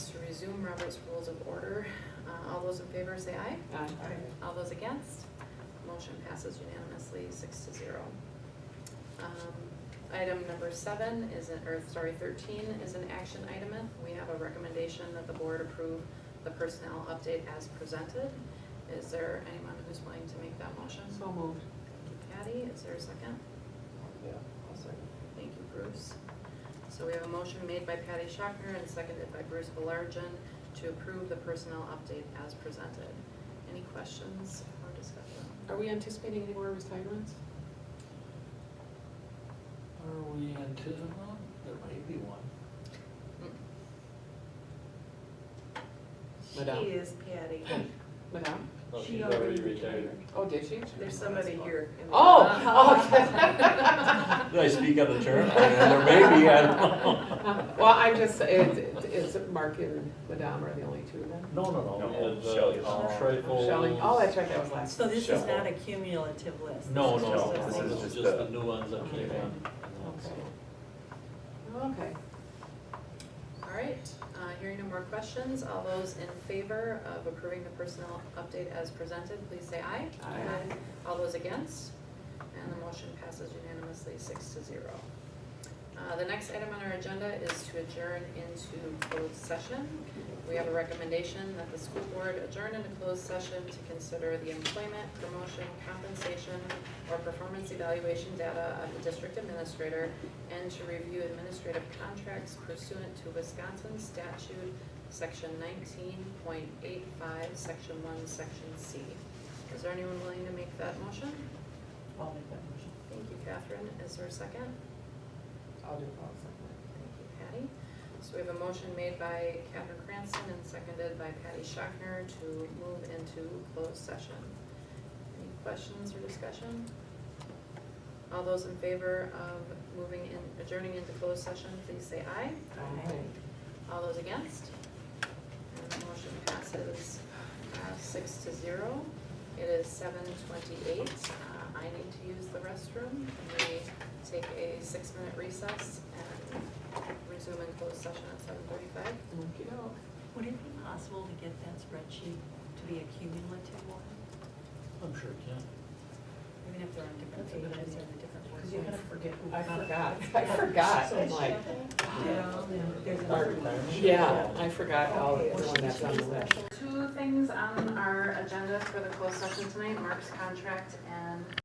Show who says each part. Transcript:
Speaker 1: resume Robert's Rules of Order. Uh, All those in favor say aye. All those against? Motion passes unanimously, six to zero. Um, Item number seven is, an or sorry, thirteen is an action item. We have a recommendation that the board approve the personnel update as presented. Is there anyone who's willing to make that motion?
Speaker 2: So moved.
Speaker 1: Thank you, Patty. Is there a second?
Speaker 3: Yeah, I'll second.
Speaker 1: Thank you, Bruce. So we have a motion made by Patty Shockner and seconded by Bruce Belargin to approve the personnel update as presented. Any questions or discussion?
Speaker 2: Are we anticipating any more retirements?
Speaker 4: Are we anticipating, there might be one.
Speaker 5: Mm,
Speaker 2: Madam.
Speaker 5: She is Patty.
Speaker 2: Madam?
Speaker 3: No,
Speaker 5: She
Speaker 3: she's
Speaker 5: already
Speaker 3: already
Speaker 5: retired.
Speaker 3: retired.
Speaker 2: Oh, did she?
Speaker 5: There's somebody here. in the-
Speaker 2: Oh, okay.
Speaker 4: Did I speak out of turn? There may be, I don't know.
Speaker 2: Well, I'm just, it's, it's Mark and Madame are the only two then.
Speaker 4: No, no, no,
Speaker 3: No,
Speaker 4: we had
Speaker 3: Shelley.
Speaker 4: the trifles.
Speaker 2: Shelley, oh, that's right, that was last.
Speaker 6: So this is
Speaker 3: Shell.
Speaker 6: not a cumulative list?
Speaker 4: No,
Speaker 6: This is
Speaker 4: no,
Speaker 6: just
Speaker 4: no,
Speaker 6: a-
Speaker 3: This
Speaker 4: no,
Speaker 3: is
Speaker 4: this is
Speaker 3: just
Speaker 4: just
Speaker 3: the-
Speaker 4: the new ones that came in.
Speaker 2: Okay.
Speaker 4: and so-
Speaker 2: Okay.
Speaker 1: All right, uh, hearing no more questions, all those in favor of approving the personnel update as presented, please say aye.
Speaker 2: Aye. Aye.
Speaker 1: All those against? And the motion passes unanimously, six to zero. Uh, The next item on our agenda is to adjourn into closed session. We have a recommendation that the school board adjourn into closed session to consider the employment, promotion, compensation, or performance evaluation data of the district administrator and to review administrative contracts pursuant to Wisconsin statute, section nineteen point eight five, section one, section C. Is there anyone willing to make that motion?
Speaker 6: I'll make that motion.
Speaker 1: Thank you, Catherine. Is there a second?
Speaker 2: I'll do it.
Speaker 1: Thank you, Patty. So we have a motion made by Catherine Cranston and seconded by Patty Shockner to move into closed session. Any questions or discussion? All those in favor of moving in, adjourning into closed session, please say aye.
Speaker 2: Okay.
Speaker 1: All those against? And the motion passes uh, six to zero. It is seven twenty-eight. Uh, I need to use the restroom. Can we take a six-minute recess and resume in closed session at seven thirty-five?
Speaker 2: Okey-doke.
Speaker 6: Would it be possible to get that spreadsheet to be a cumulative one?
Speaker 4: I'm sure it can.
Speaker 5: Even if they're on different
Speaker 6: That's a good
Speaker 5: pages
Speaker 6: idea.
Speaker 5: or different
Speaker 6: Because you're gonna
Speaker 5: words.
Speaker 6: forget. who
Speaker 2: I
Speaker 6: found it.
Speaker 2: forgot, I forgot, I'm like,
Speaker 6: Yeah, there's
Speaker 4: Our
Speaker 6: another one.
Speaker 4: retirement.
Speaker 2: yeah, I forgot all, everyone that's on the list.
Speaker 1: Two things on our agenda for the closed session tonight, Mark's contract and